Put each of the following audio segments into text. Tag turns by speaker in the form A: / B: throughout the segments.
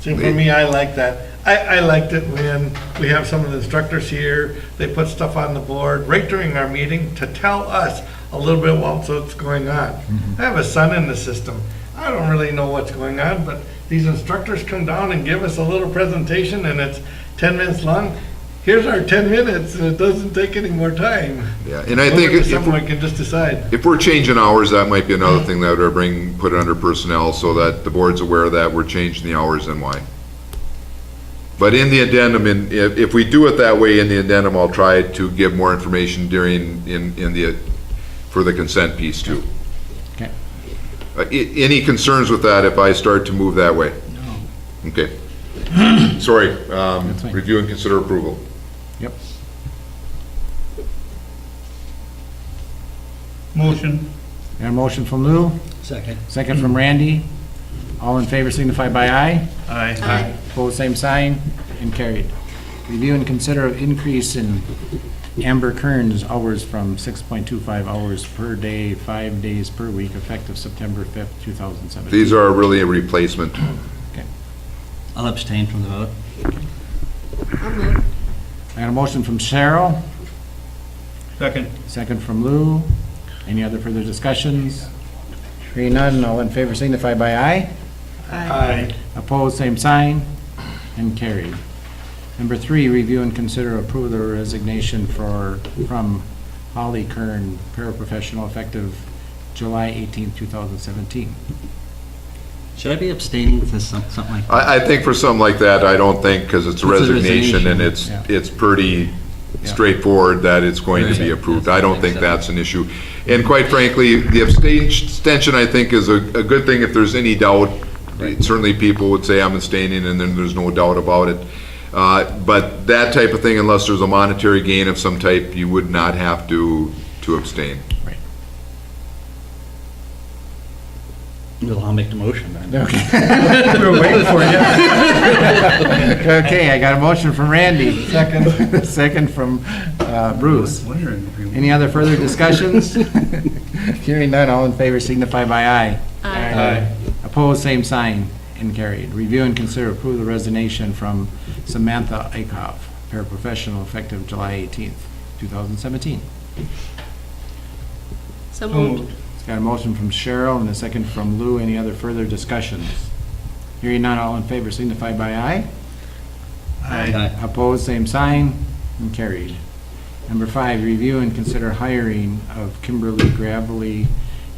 A: See, for me, I like that. I, I liked it when we have some of the instructors here, they put stuff on the board right during our meeting to tell us a little bit about what's going on.
B: Mm-hmm.
A: I have a son in the system. I don't really know what's going on, but these instructors come down and give us a little presentation and it's ten minutes long. Here's our ten minutes and it doesn't take any more time.
B: Yeah, and I think if-
A: Someone can just decide.
B: if we're changing hours, that might be another thing that would bring, put it under personnel so that the board's aware that we're changing the hours and why. But in the addendum, in, if, if we do it that way in the addendum, I'll try to give more information during, in, in the, for the consent piece too.
C: Okay.
B: Uh, i- any concerns with that if I start to move that way? No. Okay. Sorry, um,
C: That's fine.
B: review and consider approval.
C: Yep.
D: Motion.
C: Got a motion from Lou,
E: Second.
C: second from Randy. All in favor signify by aye.
D: Aye.
E: Aye.
C: Opposed, same sign, and carried. Review and consider of increase in Amber Kern's hours from 6.25 hours per day, five days per week, effective September 5th, 2017.
B: These are really a replacement.
E: I'll abstain from the vote.
C: I got a motion from Cheryl,
D: Second.
C: second from Lou. Any other further discussions? Hearing none, all in favor signify by aye.
A: Aye.
C: Opposed, same sign, and carried. Number three, review and consider approve the resignation for, from Holly Kern, paraprofessional, effective July 18, 2017.
E: Should I be abstaining for some- something like?
B: I, I think for something like that, I don't think, because it's a
E: It's a
B: resignation and it's,
E: resignation.
B: it's pretty
C: Yeah.
B: straightforward that it's going to be
E: Right.
B: approved. I don't think
E: Makes sense.
B: that's an issue. And quite frankly, the abstain- abstention, I think, is a, a good thing if there's any doubt. Certainly people would say I'm abstaining and then there's no doubt about it. Uh, but that type of thing, unless there's a monetary gain of some type, you would not have to, to abstain.
E: Well, I'll make the motion then.
C: Okay. We were waiting for you. Okay, I got a motion from Randy. Second. Second from uh, Bruce. Any other further discussions? Hearing none, all in favor signify by aye. Aye. Opposed, same sign, and carried. Review and consider approve the resignation from Samantha Aikoff, paraprofessional, effective July 18th, 2017.
F: So
D: So
F: moved.
D: moved.
C: It's got a motion from Cheryl and a second from Lou. Any other further discussions? Hearing none, all in favor signify by aye.
D: Aye.
C: Opposed, same sign, and carried. Number five, review and consider hiring of Kimberly Gravely,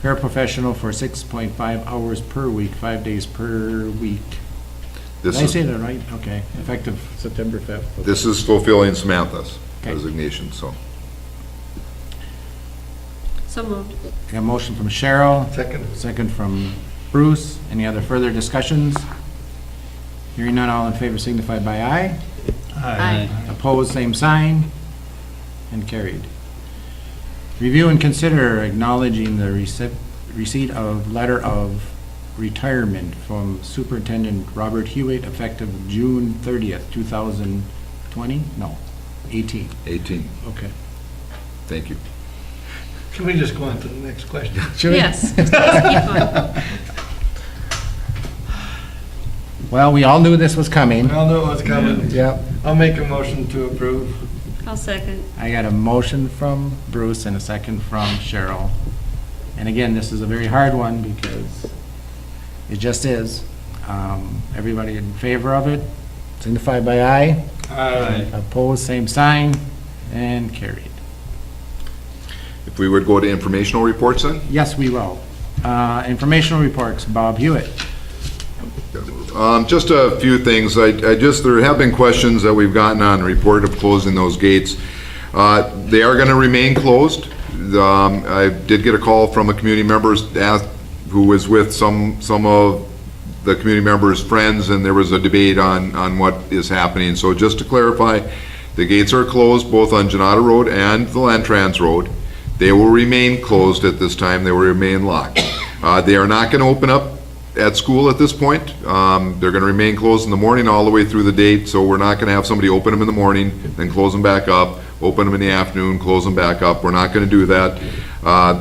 C: paraprofessional for 6.5 hours per week, five days per week. Did
B: This
C: I
B: is-
C: say that right? Okay, effective September 5th.
B: This is fulfilling Samantha's
C: Okay.
B: resignation, so.
F: So moved.
C: Got a motion from Cheryl,
A: Second.
C: second from Bruce. Any other further discussions? Hearing none, all in favor signify by aye.
F: Aye.
C: Opposed, same sign, and carried. Review and consider acknowledging the receipt, receipt of letter of retirement from Superintendent Robert Hewitt effective June thirtieth, two thousand twenty? No, eighteen,
B: 18,
C: okay.
B: thank you.
A: Can we just go on to the next question?
C: Should we-
F: Yes. Just keep going.
C: Well, we all knew this was coming.
A: I'll know what's coming.
C: Yep.
A: I'll make a motion to approve.
F: I'll second.
C: I got a motion from Bruce and a second from Cheryl. And again, this is a very hard one because it just is. Um, Everybody in favor of it, signify by aye.
A: Aye.
C: Opposed, same sign, and carried.
B: If we would go to informational reports then?
C: Yes, we will. Uh, Informational reports, Bob Hewitt.
B: Um, Just a few things. I I just, there have been questions that we've gotten on the report of closing those gates. Uh, They are going to remain closed. Um, I did get a call from a community member ask- who was with some, some of the community members' friends, and there was a debate on, on what is happening. So just to clarify, the gates are closed both on Janata Road and the Lantrans Road. They will remain closed at this time. They will remain locked. Uh, They are not going to open up at school at this point. Um, They're going to remain closed in the morning all the way through the date, so we're not going to have somebody open them in the morning, then close them back up, open them in the afternoon, close them back up. We're not going to do that. Uh,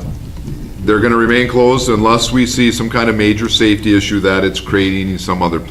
B: They're going to remain closed unless we see some kind of major safety issue that it's creating in some other place.